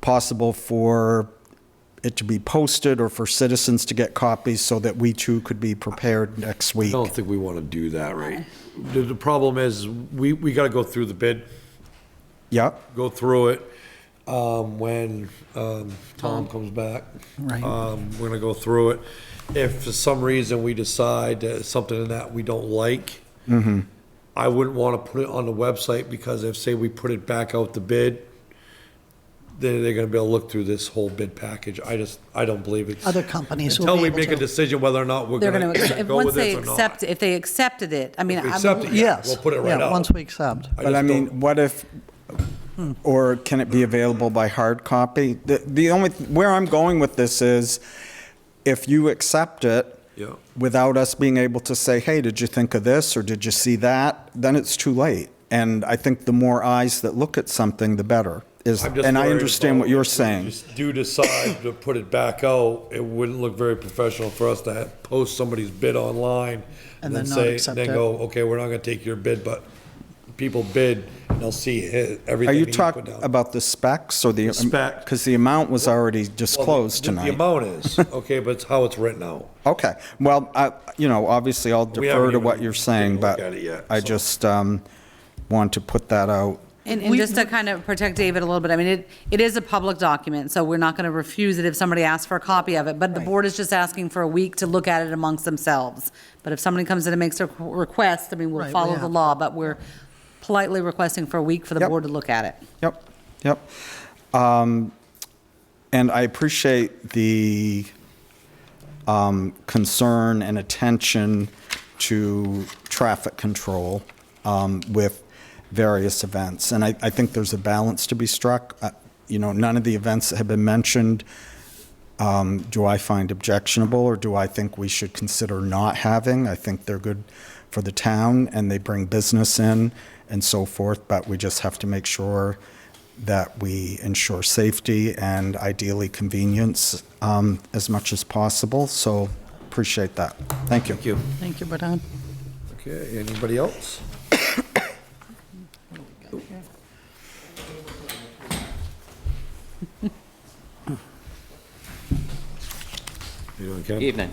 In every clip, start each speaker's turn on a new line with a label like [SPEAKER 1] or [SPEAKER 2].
[SPEAKER 1] possible for it to be posted or for citizens to get copies so that we too could be prepared next week.
[SPEAKER 2] I don't think we want to do that, right? The, the problem is, we, we got to go through the bid,
[SPEAKER 1] Yep,
[SPEAKER 2] go through it, um, when, um, Tom comes back.
[SPEAKER 3] Right.
[SPEAKER 2] Um, we're gonna go through it. If for some reason we decide that something in that we don't like,
[SPEAKER 3] Mm-hmm.
[SPEAKER 2] I wouldn't want to put it on the website because if, say, we put it back out the bid, then they're gonna be able to look through this whole bid package. I just, I don't believe it.
[SPEAKER 3] Other companies will be
[SPEAKER 2] Until
[SPEAKER 3] able
[SPEAKER 2] we make a
[SPEAKER 3] to.
[SPEAKER 2] decision whether or not we're
[SPEAKER 4] They're going
[SPEAKER 2] gonna
[SPEAKER 4] to, if,
[SPEAKER 2] go
[SPEAKER 4] once
[SPEAKER 2] with
[SPEAKER 4] they
[SPEAKER 2] this or not.
[SPEAKER 4] accept, if they accepted it, I mean,
[SPEAKER 2] If we
[SPEAKER 4] I'm.
[SPEAKER 2] accept it, yeah,
[SPEAKER 3] Yes.
[SPEAKER 2] We'll put it right
[SPEAKER 3] Yeah,
[SPEAKER 2] up.
[SPEAKER 3] once we accept.
[SPEAKER 1] but I
[SPEAKER 2] just don't-
[SPEAKER 1] mean, what if, or can it be available by hard copy? The, the only, where I'm going with this is, if you accept it
[SPEAKER 2] Yeah.
[SPEAKER 1] without us being able to say, hey, did you think of this, or did you see that, then it's too late. And I think the more eyes that look at something, the better, is,
[SPEAKER 2] I'm just
[SPEAKER 1] and I
[SPEAKER 2] worried
[SPEAKER 1] understand what
[SPEAKER 2] about
[SPEAKER 1] you're
[SPEAKER 2] if we
[SPEAKER 1] saying.
[SPEAKER 2] just Do decide to put it back out, it wouldn't look very professional for us to have, post somebody's bid online.
[SPEAKER 3] And then not
[SPEAKER 2] say-
[SPEAKER 3] accept
[SPEAKER 2] Then
[SPEAKER 3] it.
[SPEAKER 2] go, okay, we're not gonna take your bid, but people bid, and they'll see his,
[SPEAKER 1] Are
[SPEAKER 2] everything.
[SPEAKER 1] you
[SPEAKER 2] he put
[SPEAKER 1] talking
[SPEAKER 2] down.
[SPEAKER 1] about the specs or the?
[SPEAKER 2] spec.
[SPEAKER 1] Because the amount was already disclosed
[SPEAKER 2] The-
[SPEAKER 1] tonight.
[SPEAKER 2] The amount is, okay, but it's how it's written out.
[SPEAKER 1] Okay, well, I, you know, obviously I'll
[SPEAKER 2] We haven't
[SPEAKER 1] defer to
[SPEAKER 2] even
[SPEAKER 1] what you're saying,
[SPEAKER 2] taken a look
[SPEAKER 1] but
[SPEAKER 2] at it yet,
[SPEAKER 1] I
[SPEAKER 2] so.
[SPEAKER 1] just, um, want to put that out.
[SPEAKER 4] And, and just to kind of protect David a little bit, I mean, it, it is a public document, so we're not going to refuse it if somebody asks for a copy of it. But the board is just asking for a week to look at it amongst themselves. But if somebody comes in and makes a request, I mean,
[SPEAKER 3] Right,
[SPEAKER 4] we'll
[SPEAKER 3] we
[SPEAKER 4] follow the
[SPEAKER 3] have-
[SPEAKER 4] law, but we're politely requesting for a week for the
[SPEAKER 1] Yep.
[SPEAKER 4] board to look at it.
[SPEAKER 1] Yep, yep. Um, And I appreciate the um, concern and attention to traffic control um, with various events. And I, I think there's a balance to be struck. Uh, You know, none of the events that have been mentioned, um, do I find objectionable, or do I think we should consider not having? I think they're good for the town, and they bring business in and so forth, but we just have to make sure that we ensure safety and ideally convenience um, as much as possible, so appreciate that. Thank you.
[SPEAKER 2] you.
[SPEAKER 3] Thank you, Bernard.
[SPEAKER 2] Okay, anybody else? You doing, Ken?
[SPEAKER 5] Evening.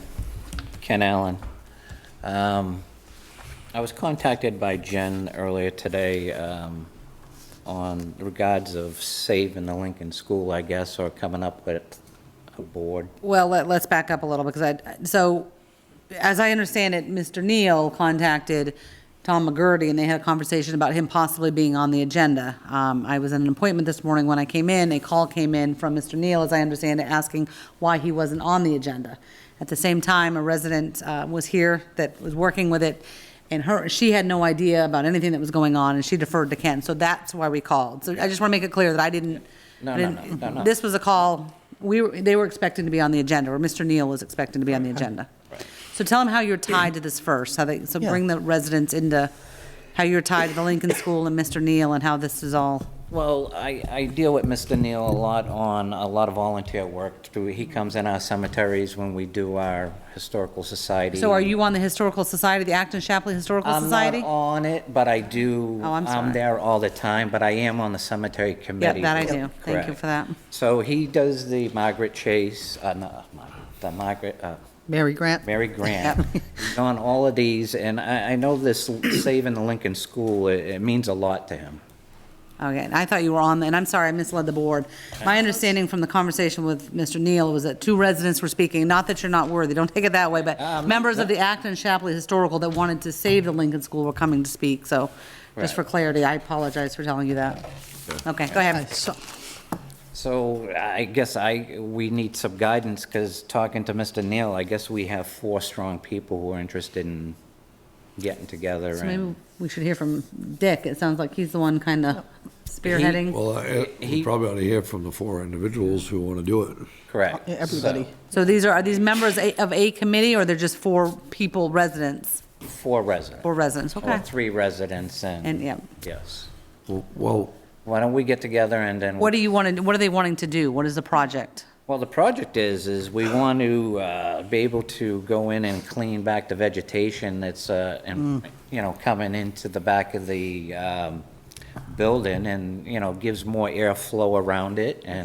[SPEAKER 5] Ken Allen. Um, I was contacted by Jen earlier today um, on regards of saving the Lincoln School, I guess, or coming up with a board.
[SPEAKER 4] Well, let, let's back up a little, because I, so, as I understand it, Mr. Neal contacted Tom McGurty, and they had a conversation about him possibly being on the agenda. Um, I was in an appointment this morning when I came in, a call came in from Mr. Neal, as I understand it, asking why he wasn't on the agenda. At the same time, a resident, uh, was here that was working with it, and her, she had no idea about anything that was going on, and she deferred to Ken, so that's why we called. So I just want to make it clear that I didn't.
[SPEAKER 5] No,
[SPEAKER 4] I
[SPEAKER 5] no,
[SPEAKER 4] didn't-
[SPEAKER 5] no, no, no.
[SPEAKER 4] This this was a call, we, were- they were expecting to be on the agenda, or Mr. Neal was expecting to be on the agenda. So tell them how you're tied to this first, how they, so
[SPEAKER 3] Yeah.
[SPEAKER 4] bring the residents into how you're tied to the Lincoln School and Mr. Neal and how this is all.
[SPEAKER 5] Well, I, I deal with Mr. Neal a lot on a lot of volunteer work. through- He comes in our cemeteries when we do our historical society.
[SPEAKER 4] So are you on the Historical Society, the Acton Shapley Historical
[SPEAKER 5] I'm
[SPEAKER 4] Society?
[SPEAKER 5] not on it, but I do.
[SPEAKER 4] Oh, I'm sorry.
[SPEAKER 5] there all the time, but I am on the cemetery committee.
[SPEAKER 4] that I do. Thank you
[SPEAKER 5] Correct.
[SPEAKER 4] for that.
[SPEAKER 5] So he does the Margaret Chase, uh, no, Mar- the Margaret, uh,
[SPEAKER 3] Mary Grant.
[SPEAKER 5] Mary Grant.
[SPEAKER 4] Yep.
[SPEAKER 5] He's on all of these, and I, I know this saving the Lincoln School, it, it means a lot to him.
[SPEAKER 4] Okay, and I thought you were on, the- and I'm sorry, I misled the board. My understanding from the conversation with Mr. Neal was that two residents were speaking, not that you're not worthy, don't take it that way, but
[SPEAKER 5] Um,
[SPEAKER 4] members of the Acton Shapley Historical that wanted to save the Lincoln School were coming to speak, so, just for
[SPEAKER 5] Right.
[SPEAKER 4] clarity, I apologize for telling you that. Okay, go
[SPEAKER 3] I
[SPEAKER 4] ahead.
[SPEAKER 3] saw-
[SPEAKER 5] So I guess I, we need some guidance, because talking to Mr. Neal, I guess we have four strong people who are interested in getting together.
[SPEAKER 4] So
[SPEAKER 5] and-
[SPEAKER 4] maybe we should hear from Dick, it sounds like he's the one kind of spearheading.
[SPEAKER 2] Well, I- we
[SPEAKER 5] He-
[SPEAKER 2] probably ought to hear from the four individuals who want to do it.
[SPEAKER 5] Correct.
[SPEAKER 3] yeah, Everybody.
[SPEAKER 5] So,
[SPEAKER 4] So these are, are these members a- of a committee, or they're just four people, residents,
[SPEAKER 5] Four residents.
[SPEAKER 4] four residents,
[SPEAKER 5] Or
[SPEAKER 4] okay?
[SPEAKER 5] three residents and.
[SPEAKER 4] And, yeah.
[SPEAKER 5] Yes.
[SPEAKER 2] Well,
[SPEAKER 5] Why don't we get together and then.
[SPEAKER 4] What do you want to, what are they wanting to do, what is the project?
[SPEAKER 5] Well, the project is, is we want to uh, be able to go in and clean back the vegetation that's, uh, in- you know, coming into the back of the um, building and, you know, gives more airflow around it and.